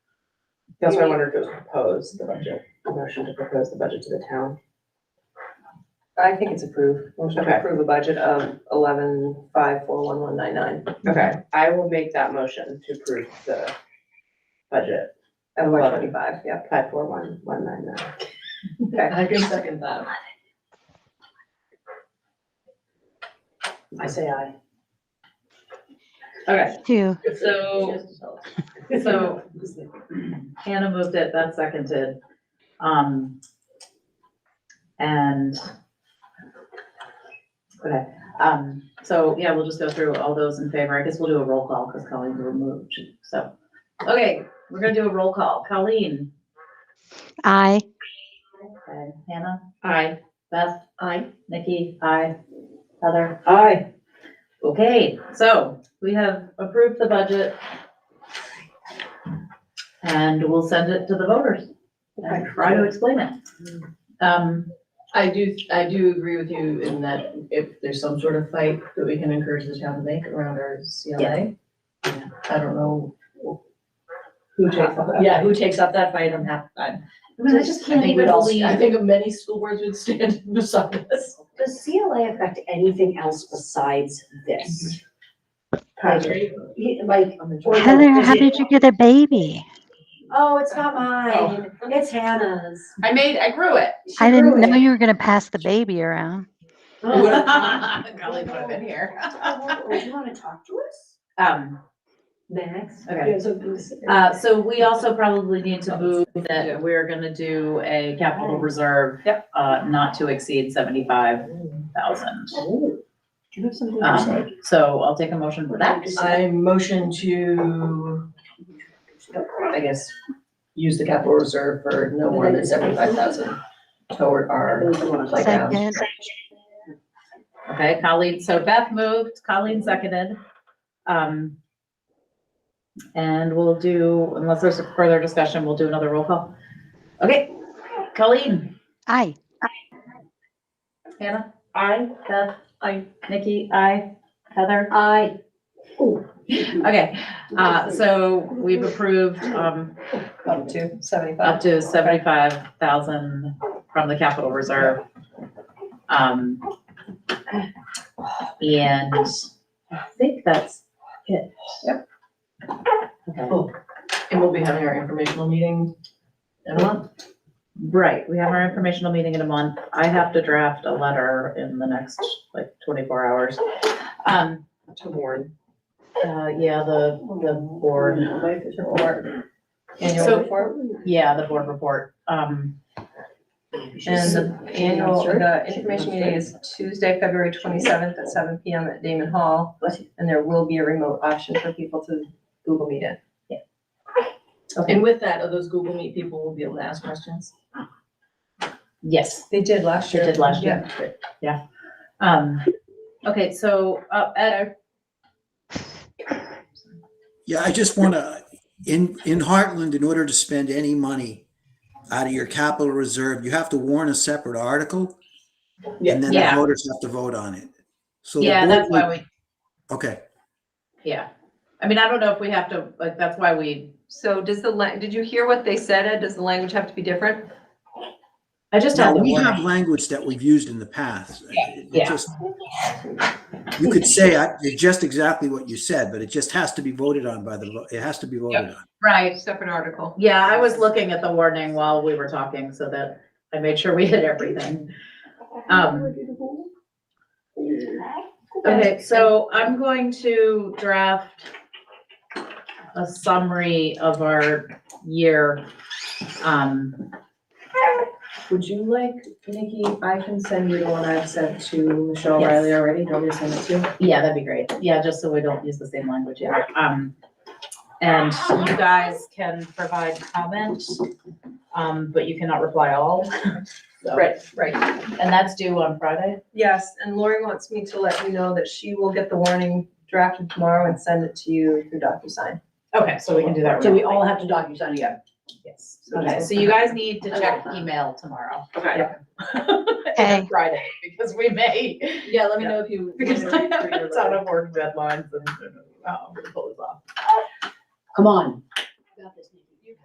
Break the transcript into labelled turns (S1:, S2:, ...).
S1: That's why I wanted to propose the budget, a motion to propose the budget to the town.
S2: I think it's approved. Motion
S1: Okay.
S2: to approve a budget of eleven five four one one nine nine.
S1: Okay, I will make that motion to approve the budget,
S2: At one
S1: Eleven.
S2: twenty-five, yeah.
S1: five, four, one, one, nine, nine.
S2: I can second that. I say aye.
S1: Okay,
S3: Two.
S4: So, so Hannah moved it, that seconded. Um, and, okay, um, so, yeah, we'll just go through all those in favor. I guess we'll do a roll call because Colleen's removed, so. Okay, we're gonna do a roll call. Colleen?
S3: I.
S4: Okay, Hannah?
S1: aye.
S4: Beth? Aye. Nikki? Aye. Heather?
S1: Aye.
S4: Okay, so we have approved the budget. And we'll send it to the voters and try to explain it. Um,
S5: I do, I do agree with you in that if there's some sort of fight that we can encourage the town to make around our CLA.
S4: Yeah.
S5: I don't know,
S1: Who takes all that?
S5: yeah, who takes up that fight, I'm half, I'm.
S4: I mean, I just can't
S5: think we'd
S4: even
S5: all- I
S4: believe,
S5: think many school boards would stand beside us.
S6: Does CLA affect anything else besides this?
S1: Patrick.
S6: He- Like, or does
S3: Heather, how
S6: it-
S3: did you get a baby?
S6: Oh, it's not mine, it's Hannah's.
S5: I made, I grew it.
S3: I didn't know you were gonna pass the baby around.
S1: Oh,
S5: Golly, would have been here.
S6: Do you wanna talk to us
S4: um,
S6: next?
S4: okay.
S1: Yeah, so this-
S4: Uh, so we also probably need to move that we're gonna do a capital reserve. Uh, not to exceed seventy-five thousand.
S6: Do you have something
S1: uh,
S6: to say?
S4: Um, so I'll take a motion for that.
S5: I motion to, I guess, use the capital reserve for no more than seventy-five thousand toward our
S3: Second.
S5: playground.
S4: Okay, Colleen, so Beth moved, Colleen seconded. Um, and we'll do, unless there's a further discussion, we'll do another roll call. Okay, Colleen,
S3: I.
S4: Hannah? I, Beth? I, Nikki? I, Heather?
S6: I,
S4: Okay, uh, so we've approved, um,
S2: Up to seventy-five.
S4: up to seventy-five thousand from the capital reserve. Um, and I think that's it. Yep. Okay.
S5: And we'll be having our informational meeting in a month.
S4: Right, we have our informational meeting in a month. I have to draft a letter in the next, like, twenty-four hours. Um,
S1: To warn.
S4: uh, yeah, the, the board,
S5: Annual
S4: So-
S5: report.
S4: yeah, the board report, um.
S2: And
S4: And,
S2: the annual, the information meeting is Tuesday, February twenty-seventh at seven P M at Damon Hall. And there will be a remote option for people to Google Meet it.
S5: And with that, those Google Meet people will be able to ask questions.
S4: yes,
S2: They did last
S4: sure
S2: year.
S4: did last year, yeah. Um, okay, so, uh, Ed,
S7: Yeah, I just want to, in, in Heartland, in order to spend any money out of your capital reserve, you have to warn a separate article. And then the
S4: Yeah.
S7: voters have to vote on it. So the
S4: yeah,
S7: board
S4: that's why we,
S7: would- Okay,
S4: yeah. I mean, I don't know if we have to, like, that's why we,
S2: So does the, la- did you hear what they said, Ed? Does the language have to be different?
S4: I just
S7: now,
S4: have the
S7: we
S4: warning.
S7: have language that we've used in the past. It
S4: yeah.
S7: just- You could say, I- it's just exactly what you said, but it just has to be voted on by the, vo- it has to be voted on.
S4: Right,
S2: Separate article.
S4: Yeah, I was looking at the warning while we were talking so that I made sure we hit everything. Um, Okay, so I'm going to draft a summary of our year. Um,
S1: Would you like, Nikki, I can send you the one I've sent to Michelle
S4: Yes.
S1: Riley already, do you want me to send it to you?
S4: Yeah, that'd be great. Yeah, just so we don't use the same language. yeah. Um, And you guys can provide comment, um, but you cannot reply all. So-
S2: Right, right.
S4: And that's due on Friday?
S2: Yes, and Lori wants me to let you know that she will get the warning drafted tomorrow and send it to you through DocuSign.
S4: Okay, so we can do that.
S5: So we
S4: remotely.
S5: all have to DocuSign again.
S4: Yes, okay, so you guys need to check email tomorrow.
S1: Okay.
S3: Okay.
S4: And Friday, because we may,
S5: Yeah, let me know if you.
S4: because I um, have a ton of work deadlines and, oh, I'm gonna pull this off.
S5: Come on.